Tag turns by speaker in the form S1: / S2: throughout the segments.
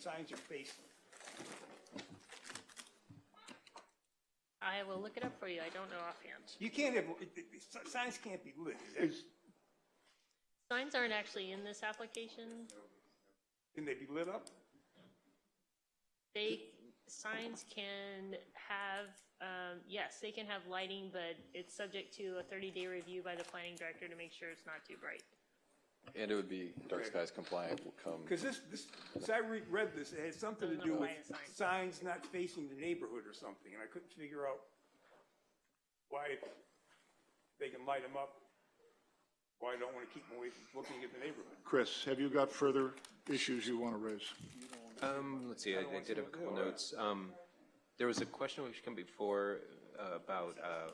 S1: signs are facing.
S2: I will look it up for you. I don't know offhand.
S1: You can't have, it- it- it- signs can't be lit, is that-
S3: Is,
S2: Signs aren't actually in this application.
S1: can they be lit up?
S2: They, signs can have, um, yes, they can have lighting, but it's subject to a thirty-day review by the planning director to make sure it's not too bright.
S4: And it would be dark skies compliant will come.
S1: Because this, this, as I re- read this, it had something to
S2: Doesn't
S1: do with
S2: apply to signs.
S1: signs not facing the neighborhood or something, and I couldn't figure out why they can light them up, why I don't want to keep them away from looking at the neighborhood.
S3: Chris, have you got further issues you want to raise?
S5: Um, let's see, I, I did have a couple notes. Um, there was a question which came before uh, about, uh,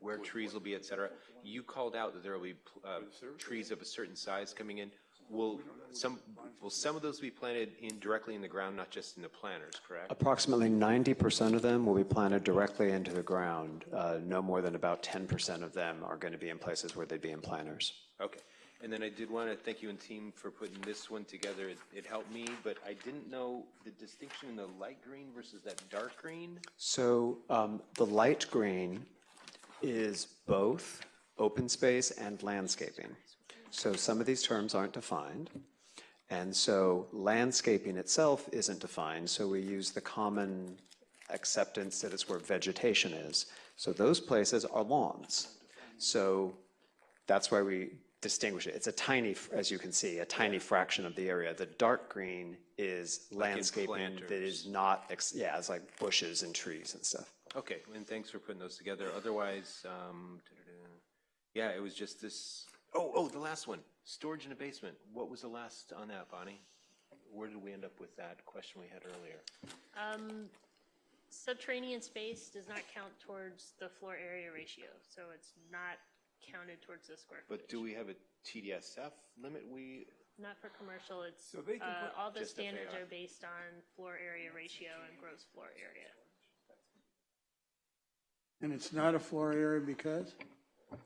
S5: where trees will be, et cetera. You called out that there will be, pl- uh, trees of a certain size coming in. Will some, will some of those be planted in, directly in the ground, not just in the planters, correct?
S6: Approximately 90% of them will be planted directly into the ground. Uh, No more than about 10% of them are going to be in places where they'd be in planters.
S5: Okay. And then I did want to thank you and team for putting this one together. It, it helped me, but I didn't know the distinction in the light green versus that dark green.
S6: So um, the light green is both open space and landscaping. So some of these terms aren't defined. And so landscaping itself isn't defined, so we use the common acceptance that it's where vegetation is. So those places are lawns. So that's why we distinguish it. It's a tiny, as you can see, a tiny fraction of the area. The dark green is landscaping that is not, ex- yeah, it's like bushes and trees and stuff.
S5: Okay, and thanks for putting those together. Otherwise, um, da-da-da. yeah, it was just this, oh, oh, the last one, storage in a basement. What was the last on that, Bonnie? Where did we end up with that question we had earlier?
S2: Subterranean space does not count towards the floor area ratio, so it's not counted towards the square
S5: But
S2: footage.
S5: do we have a TDSF limit we,
S2: Not for commercial, it's,
S1: So they can
S2: uh,
S1: put-
S2: all the
S5: Just if they
S2: standards
S5: are.
S2: are based on floor area ratio and gross floor area.
S7: And it's not a floor area because?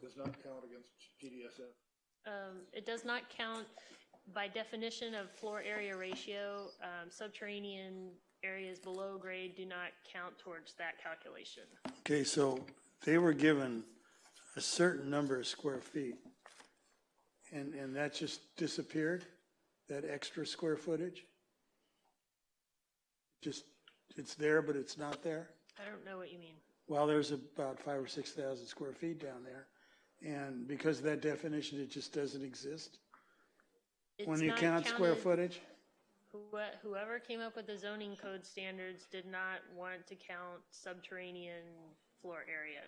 S3: Does not count against TDSF.
S2: Um, It does not count by definition of floor area ratio. um, Subterranean areas below grade do not count towards that calculation.
S7: Okay, so they were given a certain number of square feet, and, and that just disappeared, that extra square footage? Just, it's there, but it's not there?
S2: I don't know what you mean.
S7: Well, there's about five or 6,000 square feet down there, and because of that definition, it just doesn't exist?
S2: It's
S7: When you
S2: not
S7: count square
S2: counted-
S7: footage?
S2: whoe- Whoever came up with the zoning code standards did not want to count subterranean floor area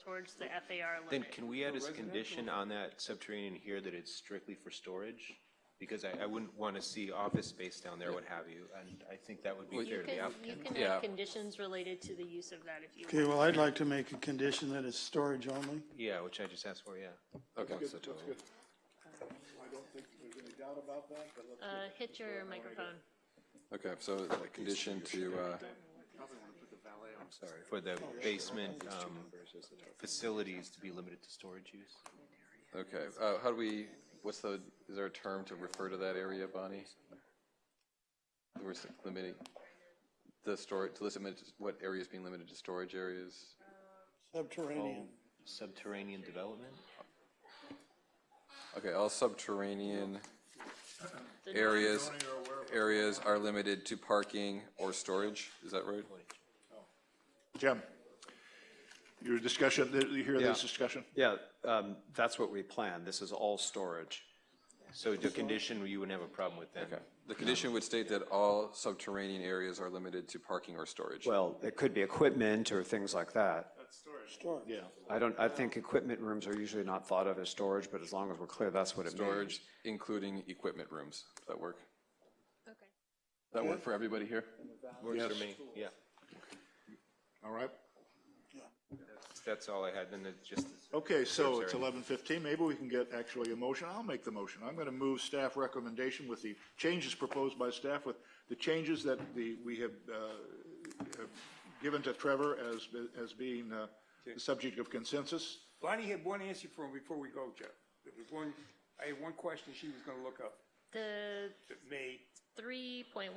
S2: towards the FAR
S5: then
S2: limit.
S5: can we add as a condition on that subterranean here that it's strictly for storage? Because I, I wouldn't want to see office space down there, what have you, and I think that would be fair
S2: You
S5: to the
S2: can,
S5: applicant.
S2: you can
S4: Yeah.
S2: have conditions related to the use of that if you
S7: Okay,
S2: want.
S7: well, I'd like to make a condition that it's storage only.
S5: Yeah, which I just asked for, yeah.
S4: Okay, so total.
S3: I don't think there's any doubt about that, but let's
S2: Uh, Hit your microphone.
S4: Okay, so a condition to, uh,
S5: for the basement um, facilities to be limited to storage use?
S4: okay, uh, how do we, what's the, is there a term to refer to that area, Bonnie? We're s- limiting the storage, to limit what area is being limited to storage areas?
S7: Subterranean.
S5: Subterranean development?
S4: Okay, all subterranean
S2: The
S4: areas, areas are limited to parking or storage, is that right?
S3: Jim, your discussion, you hear this
S6: Yeah.
S3: discussion?
S6: Yeah, um, that's what we plan. This is all storage.
S5: So the condition you wouldn't have a problem with then?
S4: Okay. The condition would state that all subterranean areas are limited to parking or storage.
S6: Well, it could be equipment or things like that.
S7: Storage. Yeah.
S6: I don't, I think equipment rooms are usually not thought of as storage, but as long as we're clear, that's what it means.
S4: Storage, including equipment rooms. Does that work?
S2: Okay.
S4: Does that work for everybody here?
S5: Works for me, yeah.
S3: All right.
S5: That's all I had, and it just.
S3: Okay, so it's
S5: Sorry.
S3: 11:15, maybe we can get actually a motion, I'll make the motion. I'm going to move staff recommendation with the changes proposed by staff with the changes that the, we have uh, have given to Trevor as, as being uh, the subject of consensus.
S1: Bonnie had one answer for him before we go, Jeff. There was one, I had one question she was gonna look up
S2: The
S1: that may
S2: 3.1